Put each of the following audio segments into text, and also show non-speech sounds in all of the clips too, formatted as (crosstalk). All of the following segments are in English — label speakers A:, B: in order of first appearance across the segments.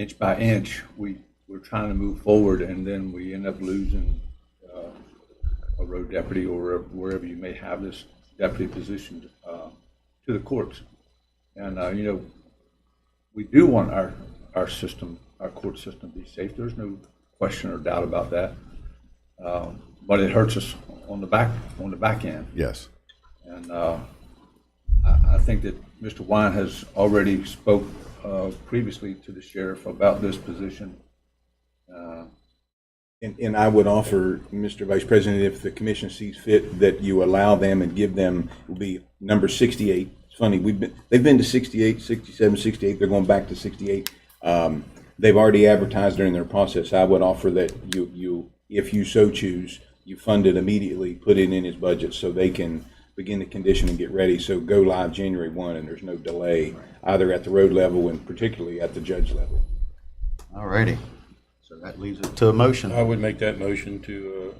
A: inch by inch, we, we're trying to move forward, and then we end up losing uh, a road deputy or wherever you may have this deputy position uh, to the courts. And, uh, you know, we do want our, our system, our court system to be safe. There's no question or doubt about that. Um, But it hurts us on the back, on the back end.
B: Yes.
A: And uh, I I think that Mr. Wine has already spoke uh, previously to the sheriff about this position.
C: And, and I would offer, Mr. Vice President, if the commission sees fit, that you allow them and give them, it will be number 68. It's funny, we've been, they've been to 68, 67, 68, they're going back to 68. Um, They've already advertised during their process. I would offer that you, you, if you so choose, you fund it immediately, put it in his budget so they can begin to condition and get ready. So go live January 1, and there's no delay, either at the road level and particularly at the judge level.
D: All righty. So that leaves it to a motion.
E: I would make that motion to uh,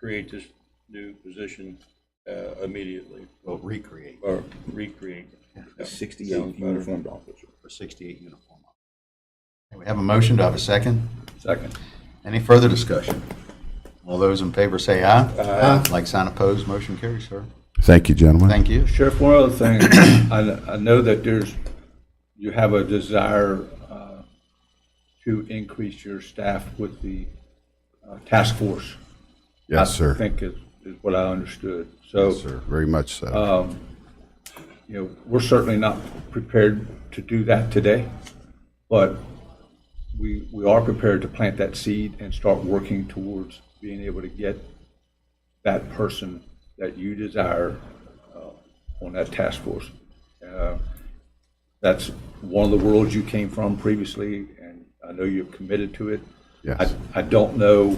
E: create this new position uh, immediately,
D: We'll recreate
E: or recreate.
C: 68 uniformed officer.
D: for 68 uniform. Okay, We have a motion. Do I have a second?
A: Second.
D: Any further discussion? All those in favor say aye. Aye. Like sign opposed, motion carries, sir.
B: Thank you, gentlemen.
D: Thank you.
A: Sheriff, one other thing, (coughs) I, I know that there's, you have a desire uh, to increase your staff with the uh, task force.
B: Yes,
A: I
B: sir.
A: think is, is what I understood. So,
B: Yes, sir. Very much so.
A: you know, we're certainly not prepared to do that today, but we, we are prepared to plant that seed and start working towards being able to get that person that you desire uh, on that task force. Uh, That's one of the worlds you came from previously, and I know you're committed to it.
B: Yes.
A: I, I don't know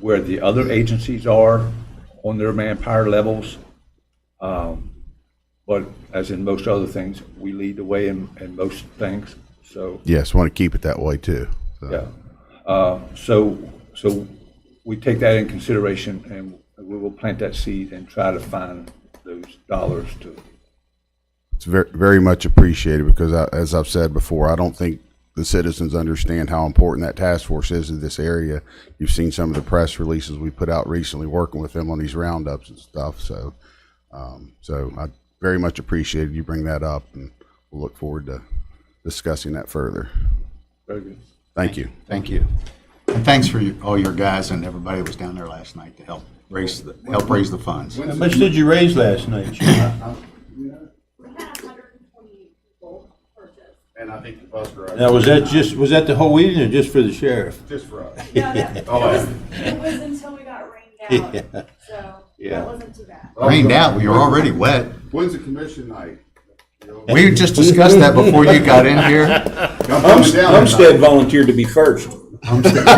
A: where the other agencies are on their manpower levels. But as in most other things, we lead the way in, in most things. So,
B: yes, want to keep it that way too. So,
A: yeah. Uh, So, so we take that in consideration and we will plant that seed and try to find those dollars to,
B: It's very, very much appreciated because, I, as I've said before, I don't think the citizens understand how important that task force is in this area. You've seen some of the press releases we put out recently, working with them on these roundups and stuff. So, um, so I very much appreciated you bring that up, and we'll look forward to discussing that further.
A: very good.
B: Thank you.
D: Thank you. And thanks for your- all your guys and everybody that was down there last night to help raise, the help raise the funds.
E: How much did you raise last night, Sheila?
F: We had hundred and twenty-eight people purchase.
G: And I think the bus driver,
E: Now, was that just, was that the whole evening or just for the sheriff?
G: just for us.
F: No, that, it
G: Oh,
F: was,
G: yeah.
F: it was until we got rained out, so
E: Yeah.
F: that wasn't too bad.
D: Rained out, you're already wet.
G: When's the commission night? You know,
D: We just discussed that before you got in
G: (laughs)
D: here.
G: I'm coming down
C: Umstead volunteered to be first.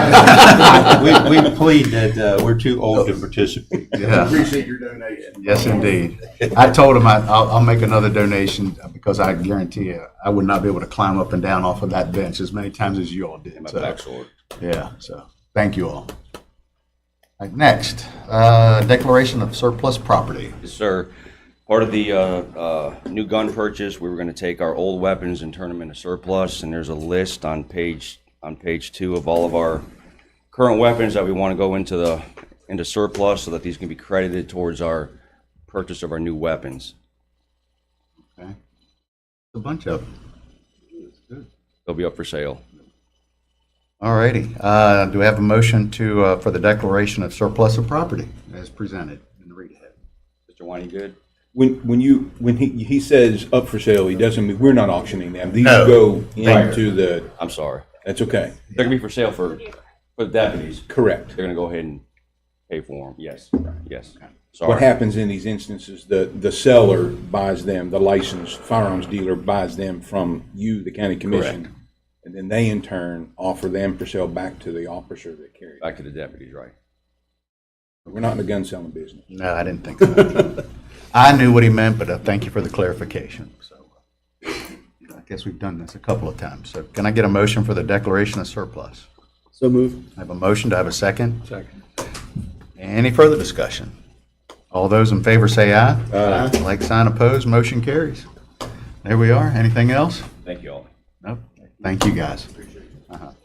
E: We, we plead that uh, we're too old to participate.
G: tonight.
D: Yeah.
G: Appreciate your donation.
D: Yes, indeed. I told him I, I'll, I'll make another donation because I guarantee you, I would not be able to climb up and down off of that bench as many times as you all did. So, yeah, so, thank you all. All right, Next, uh, declaration of surplus property.
H: Yes, sir. Part of the uh, uh, new gun purchase, we were going to take our old weapons and turn them into surplus, and there's a list on page, on page two of all of our current weapons that we want to go into the, into surplus so that these can be credited towards our purchase of our new weapons.
D: Okay, A bunch of them.
H: They'll be up for sale.
D: All righty. Uh, do we have a motion to, uh, for the declaration of surplus of property as presented in the read ahead?
H: Mr. Wine, you good?
C: When, when you, when he, he says up for sale, he doesn't mean, we're not auctioning them. These
D: No.
C: go into the,
H: I'm sorry.
C: that's okay.
H: They're going to be for sale for, for the deputies.
C: Correct.
H: They're going to go ahead and pay for them. Yes, yes.
C: What
H: Sorry.
C: happens in these instances, the, the seller buys them, the licensed firearms dealer buys them from you, the county commission. And then they in turn offer them for sale back to the officer that carried. it.
H: Back to the deputies, right?
C: We're not in the gun selling business.
D: No, I didn't think so. I knew what he meant, but uh, thank you for the clarification. So uh, I guess we've done this a couple of times. So can I get a motion for the declaration of surplus?
I: So move.
D: I have a motion. Do I have a second?
A: Second.
D: Any further discussion? All those in favor say aye. Aye. Like, sign, opposed, motion carries. There we are. Anything else?
H: Thank you all.
D: Nope. Thank you, guys. Uh-huh.